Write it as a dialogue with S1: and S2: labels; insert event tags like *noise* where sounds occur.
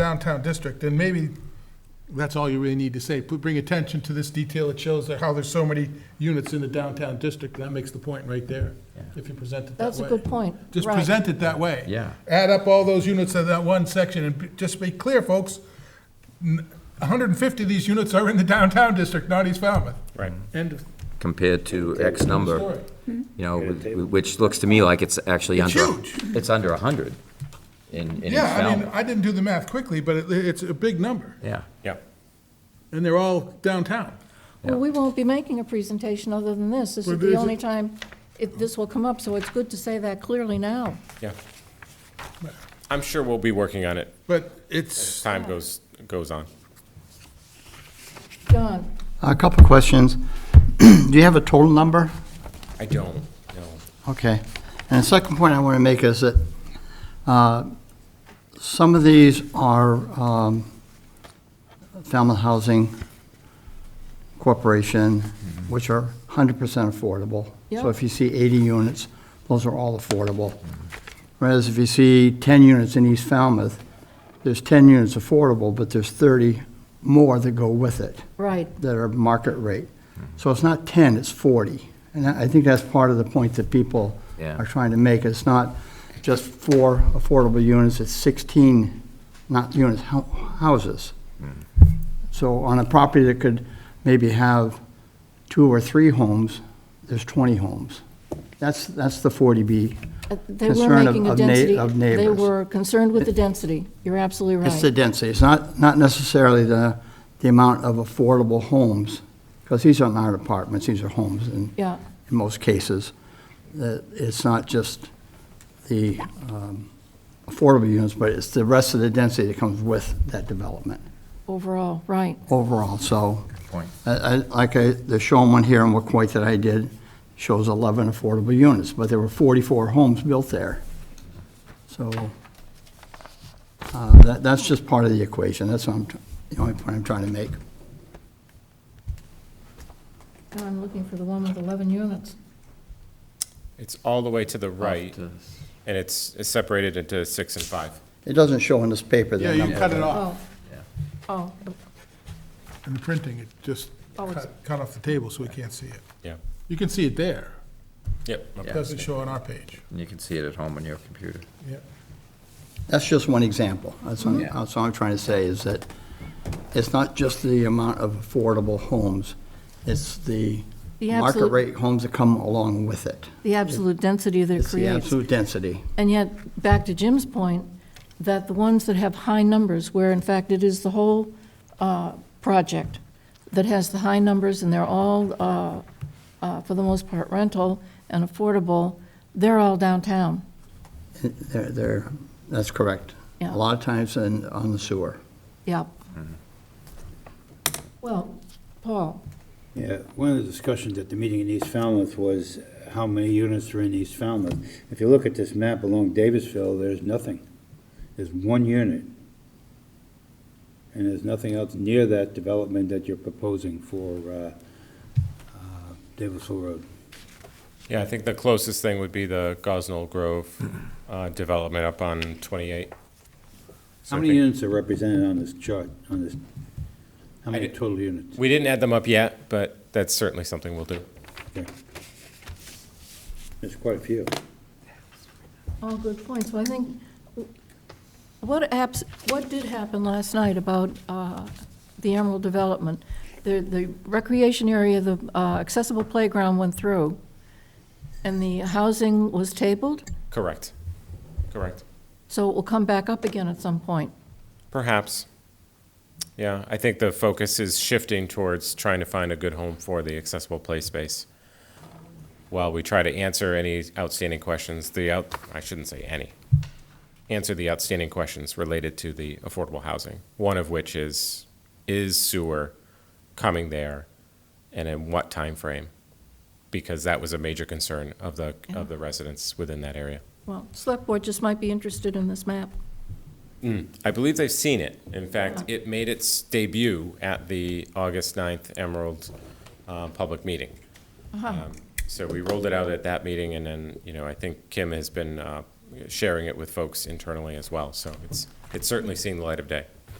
S1: downtown district, and maybe that's all you really need to say. Put- Bring attention to this detail. It shows that how there's so many units in the downtown district. That makes the point right there, if you present it that way.
S2: That's a good point.
S1: Just
S2: Right.
S1: present it that way.
S3: Yeah.
S1: Add up all those units of that one section, and be- just be clear, folks, n- 150 of these units are in the downtown district, not East Falmouth.
S4: Right.
S1: End of
S3: compared to X
S1: story.
S3: number, you know, which looks to me like it's actually
S1: It's
S3: under.
S1: huge.
S3: It's under 100 in, in
S1: Yeah, I
S3: Falmouth.
S1: mean, I didn't do the math quickly, but it- it's a big number,
S3: Yeah,
S4: Yeah.
S1: and they're all downtown.
S2: Well, we won't be making a presentation other than this. This
S1: Well,
S2: is
S1: is
S2: the
S1: it-
S2: only time it- this will come up, so it's good to say that clearly now.
S4: Yeah. I'm sure we'll be working on it
S1: But
S4: as
S1: it's,
S4: time goes, goes on.
S2: John?
S5: A couple of questions. *clears throat* Do you have a total number?
S4: I don't, know.
S5: Okay. And the second point I want to make is that uh, some of these are um, Falmouth Housing Corporation, which are 100% affordable.
S2: Yeah.
S5: So if you see 80 units, those are all affordable. Whereas if you see 10 units in East Falmouth, there's 10 units affordable, but there's 30 more that go with it.
S2: Right.
S5: that are market rate. So it's not 10, it's 40. And I I think that's part of the point that people
S3: Yeah.
S5: are trying to make. It's not just four affordable units, it's 16, not units, hou- houses. So on a property that could maybe have two or three homes, there's 20 homes. That's, that's the 40B.
S2: Uh, They were
S5: Concern of-
S2: making a
S5: of na-
S2: density.
S5: of
S2: They
S5: neighbors.
S2: were concerned with the density. You're absolutely
S5: It's the
S2: right.
S5: density, it's not, not necessarily the, the amount of affordable homes, because these are not apartments, these are homes, and
S2: Yeah,
S5: in most cases, that it's not just the um, affordable units, but it's the rest of the density that comes with that development
S2: overall, right.
S5: overall, so.
S3: point.
S5: I- I- Like I- the shown one here in Wacoit that I did shows 11 affordable units, but there were 44 homes built there. So uh, that- that's just part of the equation, that's what I'm, tr- the only point I'm trying to make.
S2: And I'm looking for the one with 11 units.
S4: It's all the way to the right, and it's it's separated into six and five.
S5: It doesn't show in this paper
S1: yeah,
S5: the
S1: you cut
S5: number.
S1: it off
S2: Oh. Oh,
S1: in the printing, it just
S2: Oh, it's-
S1: cut cut off the table so we can't see it.
S4: Yeah.
S1: You can see it there,
S4: Yep.
S1: it doesn't show on our page.
S3: And you can see it at home on your computer.
S1: Yeah.
S5: That's just one example, that's what, I'm-
S3: Yeah.
S5: that's what I'm trying to say, is that it's not just the amount of affordable homes, it's the
S2: The
S5: market
S2: absolute-
S5: rate homes that come along with it.
S2: the absolute density that it
S5: It's the
S2: creates.
S5: absolute density.
S2: And yet, back to Jim's point, that the ones that have high numbers, where in fact it is the whole uh, project that has the high numbers, and they're all, uh, uh, for the most part, rental and affordable, they're all downtown.
S5: They're, they're, that's correct.
S2: Yeah.
S5: A lot of times in, on the sewer.
S2: Yep.
S5: Mm-hmm.
S2: Well, Paul,
S6: Yeah, one of the discussions at the meeting in East Falmouth was how many units are in East Falmouth. If you look at this map along Davisville, there's nothing. There's one unit. And there's nothing else near that development that you're proposing for uh, uh, Davisville Road.
S4: Yeah, I think the closest thing would be the Gosnell Grove uh, development up on 28. So
S6: How
S4: I
S6: many
S4: think-
S6: units are represented on this chart, on this? How many
S4: did-
S6: total units?
S4: We didn't add them up yet, but that's certainly something we'll do.
S6: Okay. There's quite a few.
S2: all good points. So I think, what apps, what did happen last night about uh, the Emerald Development? The, the recreation area, the uh, accessible playground went through, and the housing was tabled,
S4: Correct. Correct.
S2: so it will come back up again at some point.
S4: Perhaps. Yeah, I think the focus is shifting towards trying to find a good home for the accessible play space. While we try to answer any outstanding questions, the out, I shouldn't say any, answer the outstanding questions related to the affordable housing. One of which is, is sewer coming there and in what time frame? Because that was a major concern of the, of the residents within that area.
S2: Well, select board just might be interested in this map.
S4: I believe they've seen it. In fact, it made its debut at the August 9th Emerald uh, Public Meeting. Um, So we rolled it out at that meeting, and then, you know, I think Kim has been uh, sharing it with folks internally as well, so it's, it's certainly seen the light of day.